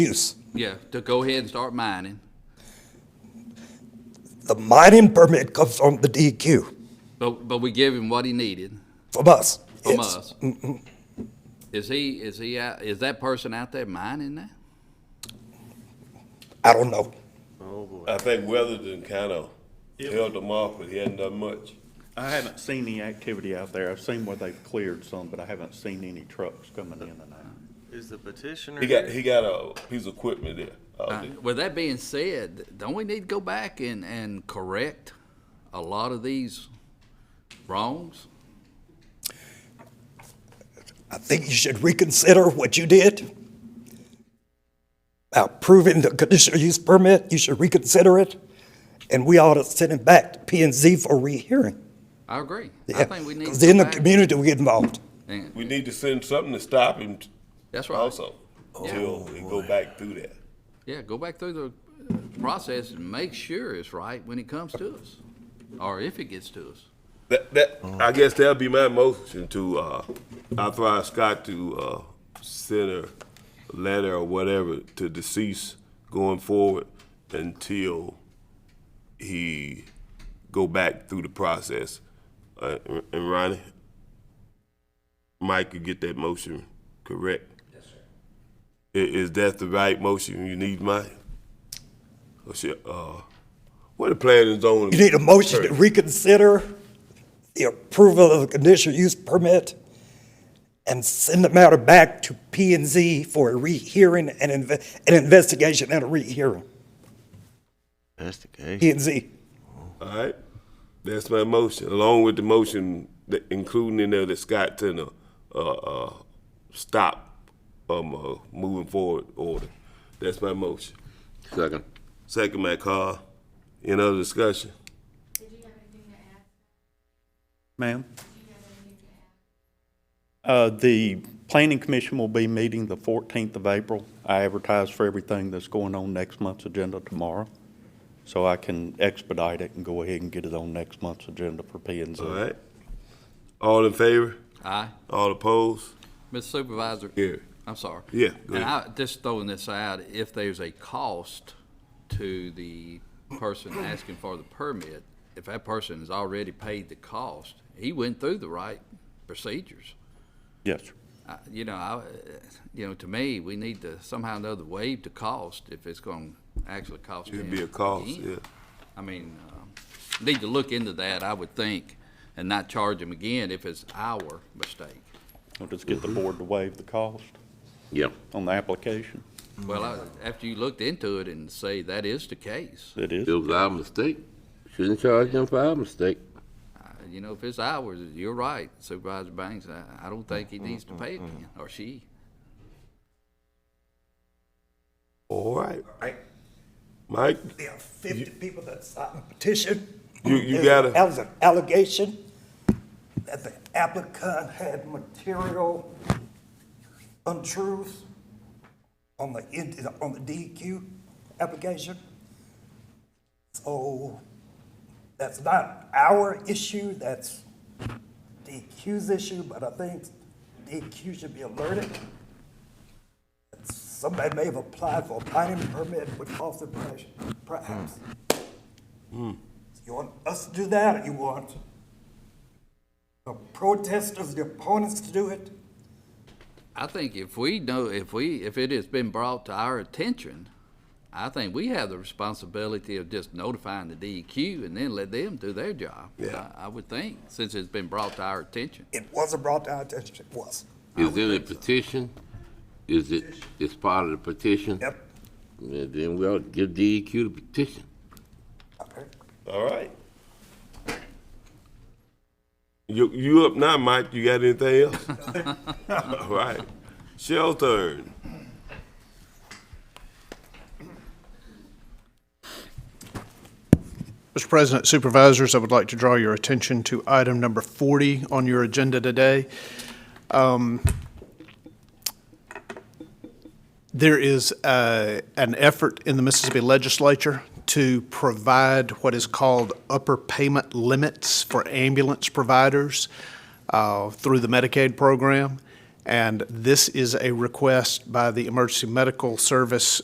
use. Yeah, to go ahead and start mining. The mining permit comes from the DEQ, But, but we give him what he needed from us. from It's- us. Is he, is he, out- is that person out there mining now? I don't know. I think Weatherden kind of held them off, but he hadn't done much. I haven't seen any activity out there. I've seen where they've cleared some, but I haven't seen any trucks coming in and out. Is the petitioner He got here? he got a piece of equipment there. Uh, out there. With that being said, don't we need to go back and, and correct a lot of these wrongs? I think you should reconsider what you did. About proving the conditional use permit, you should reconsider it. And we ought to send it back to P and Z for rehearing. I agree. I Yeah, think we need to Because go then the back community will get involved. and- We need to send something to stop him t- That's right. also, till we go back through that. Yeah, go back through the uh, process and make sure it's right when it comes to us, or if it gets to us. That, that, I guess that'd be my motion to, uh, authorize Scott to, uh, send a letter or whatever to deceased going forward until he go back through the process. Uh, and Ronnie, Mike could get that motion correct. Yes, sir. Is, that the right motion you need, Mike? Or should, uh, what the plan is on? You need a motion to reconsider the approval of the conditional use permit and send the matter back to P and Z for a rehearing and inve- an investigation and a rehearing. That's the case. P and Z. All right, that's my motion, along with the motion, that including in there that Scott sent a, uh, uh, stop, um, uh, moving forward order. That's my motion. Second. Second, my call. Any other discussion? Ma'am? Uh, the planning commission will be meeting the fourteenth of April. I advertise for everything that's going on next month's agenda tomorrow. So I can expedite it and go ahead and get it on next month's agenda for P and Z. All right? All in favor? Aye. All opposed? Mr. Supervisor? Yeah. I'm sorry. Yeah, go And I, just throwing this out, if there's a cost to the person asking for the permit, if that person has already paid the cost, he went through the right procedures. Yes, sir. I- You know, I, you know, to me, we need to somehow or another waive the cost if it's gonna actually cost him. It'd be a cost, again. yeah. I mean, um, need to look into that, I would think, and not charge him again if it's our mistake. I'll just get the board to waive the cost Yeah. on the application. Well, I- after you looked into it and say that is the case, It is. It was our mistake. Shouldn't charge them for our mistake. uh, you know, if it's ours, you're right, Supervisor Banks, I, I don't think he needs to pay it again, or she. All right. Mike, There are 50 people that signed the petition. You- you There's- gotta- That was an allegation that the applicant had material untruths on the, in- on the DEQ application. So that's not our issue, that's DEQ's issue, but I think DEQ should be alerted. Somebody may have applied for a mining permit with false impression, perhaps. You want us to do that, or you want the protesters, the opponents to do it? I think if we know, if we, if it has been brought to our attention, I think we have the responsibility of just notifying the DEQ and then let them do their job. Yeah. I I would think, since it's been brought to our attention. It wasn't brought to our attention, it was. Is it a petition? Is it, it's part of the petition? Yep. Yeah, Then we ought to give DEQ the petition. Okay. all right. You, you up now, Mike? You got anything else? All right. Shelter. Mr. President, Supervisors, I would like to draw your attention to item number 40 on your agenda today. Um, There is uh, an effort in the Mississippi Legislature to provide what is called upper payment limits for ambulance providers uh, through the Medicaid program. And this is a request by the Emergency Medical Service